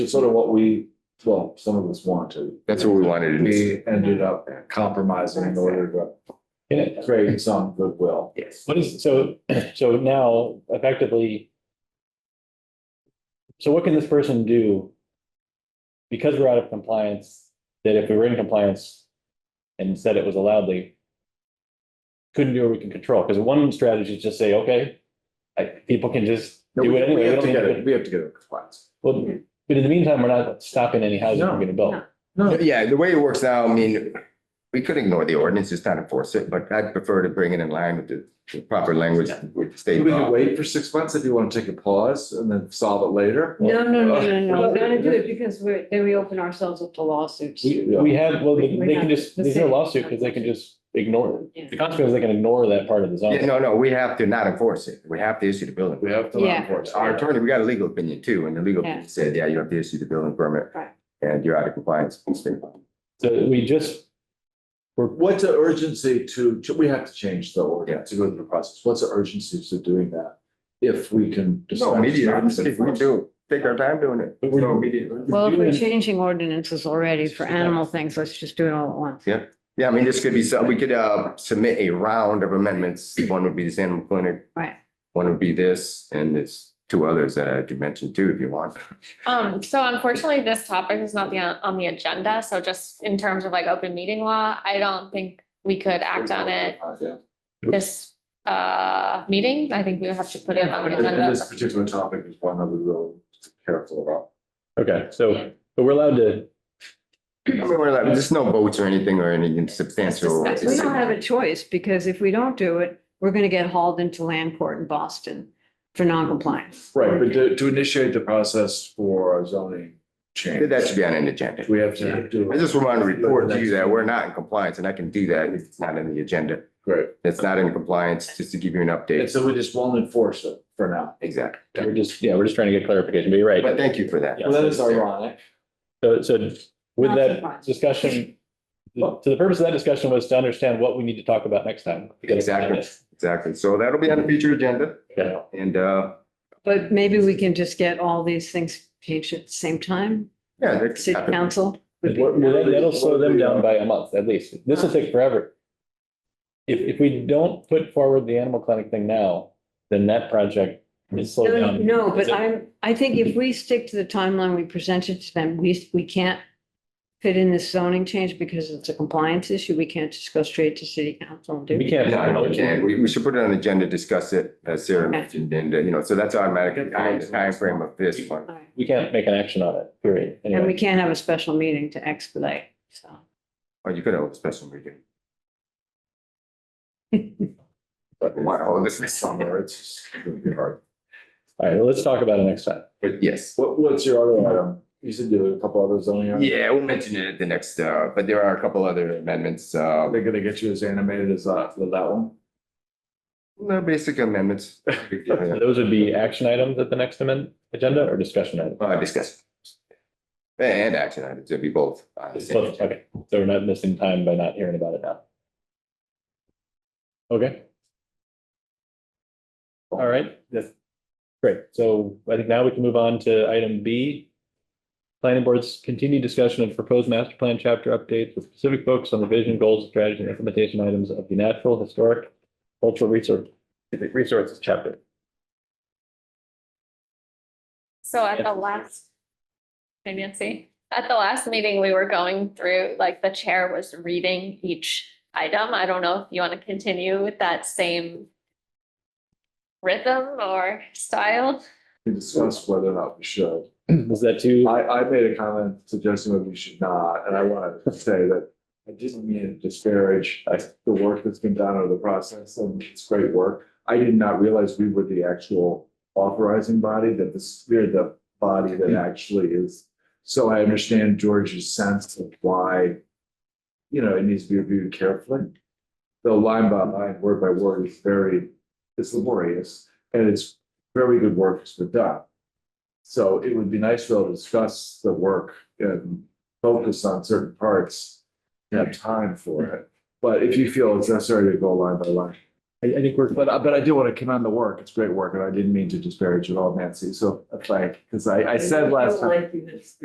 It's sort of what we, well, some of us want to. That's what we wanted to do. We ended up compromising in order to Yeah, create some goodwill. Yes. what is, so, so now effectively. So what can this person do? Because we're out of compliance, that if we were in compliance and said it was allowedly. Couldn't do what we can control, because one strategy is just say, okay, I, people can just No, do we- it We anyway. we have don't to need get to- it, we have to get it compliant. Well, but in the meantime, we're not stopping any houses No, we're gonna build. no. No, Yeah, the way it works now, I mean, we could ignore the ordinance, just not enforce it, but I'd prefer to bring it in line with the the proper language with the state we can law. wait for six months if you want to take a pause and then solve it later. No, no, no, no, no, Well, we're gonna do it because we're, then we open ourselves up to lawsuits. We, Yeah. we have, well, they We're they not can just, the there's no same. lawsuit, because they can just ignore Yeah. it. The consequence, is they can ignore that part of the zone. Yeah, no, no, we have to not enforce it. We have to issue the building. We have to. Yeah. enforce it. Our attorney, we got a legal opinion too, and the legal Yeah. opinion said, yeah, you have to issue the building permit. Right. And you're out of compliance with state law. So we just, What's the urgency to, we have to change the order to go through the process. What's the urgency to doing that? If we can. No, immediately, if we do, take our time doing it. But we're- So immediately. Well, if we're Doing- changing ordinances already for animal things, let's just do it all at once. Yeah, I mean, this could be, so, we could, uh, submit a round of amendments. One would be this animal clinic. Right. One would be this, and there's two others that I could mention too, if you want. Um, so unfortunately, this topic is not the, on the agenda, so just in terms of like open meeting law, I don't think we could act on it Uh, Yeah. this, uh, meeting. I think we would have to put it on the And and this agenda. particular topic is one that we're really careful about. okay, so, but we're allowed to, I mean, we're like, there's no votes or anything or anything substantial. It's We don't have a choice, because if we don't do it, we're gonna get hauled into land court in Boston for noncompliance. Right, but to, to initiate the process for a zoning change. That should be on an agenda. We have to do. I just want to report to you that we're not in compliance, and I can do that if it's not in the agenda. Great. It's not in compliance, just to give you an And update. so we just won't enforce it for now. Exactly. we're just, yeah, we're just trying to get clarification, but you're right. But thank you for that. Yeah. Well, that is ironic. So, so with Not that surprised. discussion, the- so the purpose of that discussion was to understand what we need to talk about next time. We gotta plan Exactly. it. Exactly. So that'll be on the future agenda. Yeah. And, uh, But maybe we can just get all these things changed at the same time, yeah. that could city happen. council. would be- Well, that- That'll slow them down by a month at least. This will take forever. If, if we don't put forward the animal clinic thing now, then that project is slowed No, down. no, but Yeah. I'm, I think if we stick to the timeline we presented to them, we, we can't fit in this zoning change because it's a compliance issue. We can't just go straight to city council and do We it. can't. Yeah, no, we can't. We, we should put it on the agenda, discuss it, as Sarah mentioned, and, uh, you know, so that's automatically on the timeframe of this one. All right. We can't make an action on it, period. And we Anyway, can't have a special meeting to expedite, so. Or Oh, you could have a special meeting. But wow, this is summer. Summer, it's gonna be hard. all right, well, let's talk about it next time. But yes. What, what's your other item? You said there were a couple other zoning. items. Yeah, we'll mention it at the next, uh, but there are a couple other amendments, Are uh, they gonna get you as animated as that, with that one? no basic amendments. So Uh, Those would be action items at the next amendment agenda or discussion items? Uh, discuss. And action items, it'll be both. Uh, on the same Both, agenda. Okay, so we're not missing time by not hearing about it now. Okay. All right, that's great. So I think now we can move on to item B. Planning Board's continued discussion of proposed master plan chapter updates with specific focus on the vision, goals, strategies, and implementation items of the natural, historic, cultural resource, resources chapter. So at the last, Hey, Nancy, at the last meeting, we were going through, like, the chair was reading each item. I don't know if you want to continue with that same rhythm or style. We discussed whether or not we should. Was that too? I, I made a comment suggesting that we should not, and I want to say that I didn't mean to disparage uh, the work that's been done or the process, and it's great work. I did not realize we were the actual authorizing body, that this, we're the body that actually is. So I understand George's sense of why, you know, it needs to be reviewed carefully. Though line by line, word by word is very, it's laborious, and it's very good work that's been done. So it would be nice to be able to discuss the work and focus on certain parts. and Have time for it, but if you feel it's necessary to go line by line, I, I think we're, But, I- but I do want to commend the work. It's great work, and I didn't mean to disparage it all, Nancy, so, like, because I, I said last time.